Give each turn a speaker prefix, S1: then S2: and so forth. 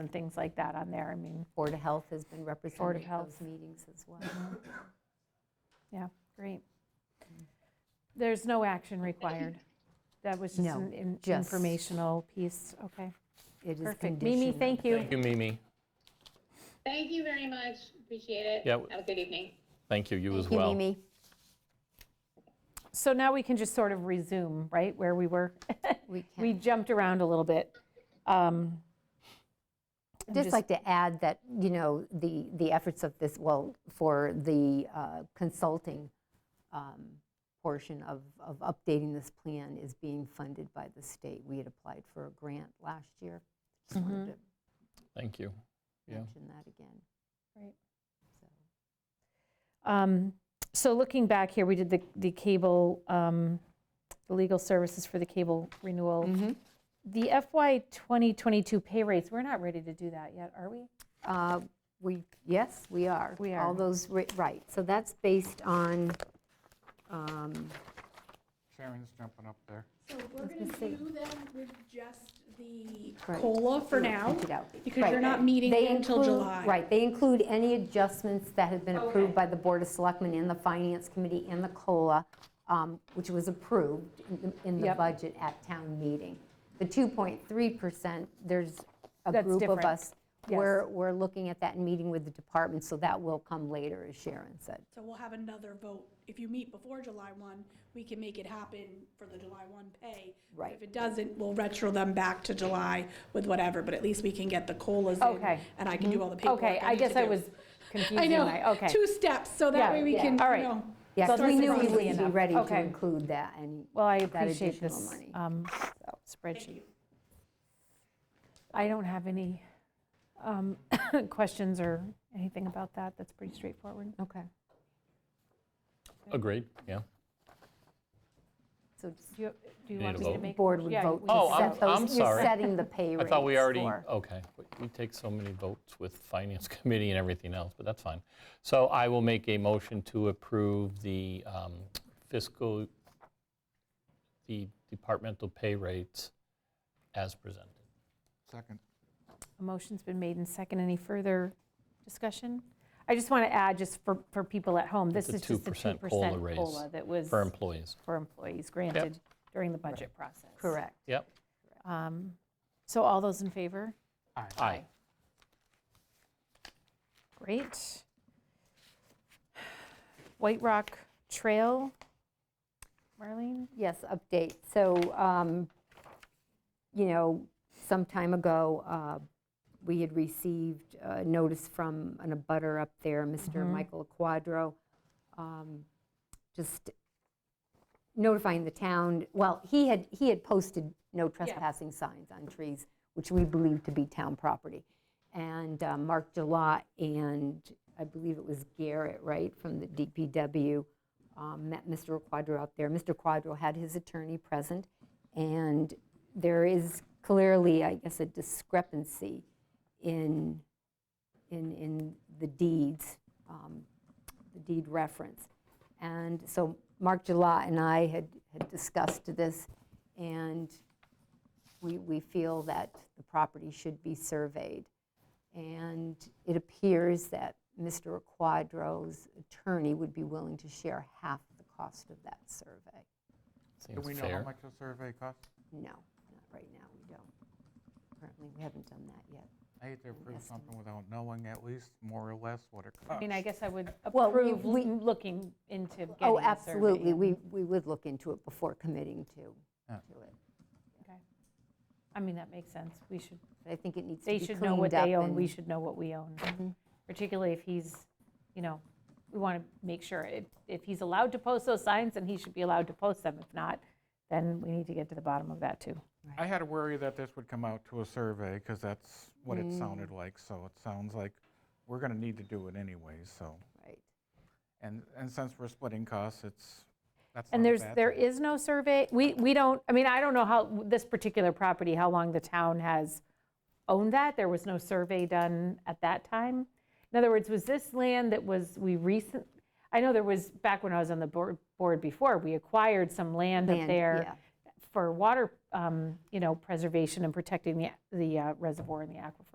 S1: and things like that on there. I mean,
S2: Board of Health has been represented at
S1: Health. Mm-hmm.
S2: those meetings as well.
S1: yeah, great. There's no action required. That was just
S2: No,
S1: an in-
S2: just-
S1: informational piece, okay.
S2: It is
S1: Perfect. Mimi,
S2: conditional.
S1: thank you.
S3: Thank you, Mimi.
S4: Thank you very much. Appreciate it.
S3: Yeah.
S4: Have a good evening.
S3: Thank you, you as
S2: Thank you,
S3: well.
S2: Mimi.
S1: So now we can just sort of resume, right, where we were?
S2: We
S1: We
S2: can,
S1: jumped around a little bit. Um, I'm
S2: just like to add that, you know, the, the efforts of this, well, for the uh, consulting um, portion of, of updating this plan is being funded by the state. We had applied for a grant last year. Just
S1: Mm-hmm.
S2: wanted
S3: Thank you.
S2: to
S3: Yeah.
S2: mention that again.
S1: Great.
S2: So,
S1: Um, So looking back here, we did the, the cable, um, the legal services for the cable renewal.
S5: Mm-hmm.
S1: The FY 2022 pay rates, we're not ready to do that yet, are we?
S2: Uh, We, yes, we are.
S1: We are.
S2: All those, ri- right, so that's based on, um,
S6: Sharon's jumping up there.
S5: So we're gonna do them with just the
S2: Right.
S5: COLA for now,
S2: print it out.
S5: because
S2: Right.
S5: you're not meeting
S2: They
S5: until
S2: include-
S5: July.
S2: Right, they include any adjustments that have been approved by
S5: Okay.
S2: the Board of Selectmen and the Finance Committee and the COLA, um, which was approved in the- in the
S1: Yep.
S2: budget at town meeting. The 2.3%, there's a
S1: That's
S2: group of
S1: different.
S2: us.
S1: Yes.
S2: We're, we're looking at that and meeting with the department, so that will come later, as Sharon said.
S5: So we'll have another vote. If you meet before July 1, we can make it happen for the July 1 pay. But
S2: Right.
S5: If it doesn't, we'll retro them back to July with whatever, but at least we can get the COLAs in.
S1: Okay.
S5: And I can do all the paperwork
S1: Okay, I
S5: need to
S1: guess I
S5: do.
S1: was
S5: I
S1: confusing my,
S5: know,
S1: okay.
S5: two steps, so
S1: Yeah,
S5: that way we
S2: yeah.
S5: can, you
S1: All right.
S5: know.
S2: Yeah, 'cause
S1: So
S2: we
S1: that's
S2: knew we
S1: easily
S2: would be
S1: enough.
S2: ready to
S1: Okay.
S2: include that, and
S1: Well, I
S2: that
S1: appreciate
S2: additional
S1: this
S2: money.
S1: um, spreadsheet. I don't have any um, questions or anything about that. That's pretty straightforward.
S2: Okay,
S3: Agreed, yeah.
S2: so just-
S1: Do you- do you
S3: You
S1: want
S3: need
S1: me
S3: a
S1: to
S3: vote?
S1: make?
S2: board would
S1: yeah,
S2: vote
S1: we
S2: to
S3: Oh,
S1: set
S3: I'm-
S2: set those,
S3: I'm
S2: you're
S3: sorry.
S2: setting the pay
S3: I
S2: rates
S3: thought we already,
S2: for-
S3: okay, we- we take so many votes with Finance Committee and everything else, but that's fine. So I will make a motion to approve the um, fiscal, the departmental pay rates as presented.
S6: Second.
S1: A motion's been made and second. Any further discussion? I just want to add, just for, for people at home, this
S3: It's a
S1: is just a 2%
S3: 2% COLA raise
S1: COLA that was
S3: For employees.
S1: for employees granted during the budget process.
S2: Correct.
S3: Yep,
S1: Um, So all those in favor?
S3: aye.
S1: Great. White Rock Trail, Marlene?
S2: Yes, update. So, um, you know, some time ago, uh, we had received uh, notice from an abutter up there, Mr.
S3: Mm-hmm.
S2: Michael Quadro, um, just notifying the town, well, he had, he had posted no trespassing signs on trees, which we believe to be town property. And uh, Mark Gillot and I believe it was Garrett, right, from the DPW, um, met Mr. Quadro out there. Mr. Quadro had his attorney present, and there is clearly, I guess, a discrepancy in, in, in the deeds, um, the deed reference. And so Mark Gillot and I had had discussed this, and we, we feel that the property should be surveyed. And it appears that Mr. Quadro's attorney would be willing to share half the cost of that survey.
S6: Do
S3: Seems
S6: we know how
S3: fair.
S6: much a survey costs?
S2: No, not right now, we don't. Apparently, we haven't done that yet. Oh,
S6: I hate to approve something without knowing at least more or less what it costs.
S1: I mean, I guess I would
S2: Well, we-
S1: approve
S2: we-
S1: l- looking into getting a survey.
S2: Oh, absolutely, we, we would look into it before committing to,
S6: Yeah.
S2: to it.
S1: I mean, that makes sense. We should
S2: But I think it needs to
S1: they
S2: be
S1: should
S2: cleaned
S1: know what
S2: up
S1: they own,
S2: and- Mm-hmm.
S1: we should know what we own. Particularly if he's, you know, we want to make sure, if, if he's allowed to post those signs, then he should be allowed to post them. If not, then we need to get to the bottom of that, too.
S6: I had a worry that this would come out to a survey, because that's what
S1: Mm.
S6: it sounded like, so it sounds like we're going to need to do it anyway, so.
S2: Right.
S6: And, and since we're splitting costs, it's, that's not
S1: And
S6: a
S1: there's,
S6: bad
S1: there
S6: thing.
S1: is no survey, we, we don't, I mean, I don't know how, this particular property, how long the town has owned that. There was no survey done at that time. In other words, was this land that was, we recent, I know there was, back when I was on the board, board before, we acquired some land up
S2: Land,
S1: there.
S2: yeah.
S1: for water, um, you know, preservation and protecting the the uh, reservoir and the aquifer.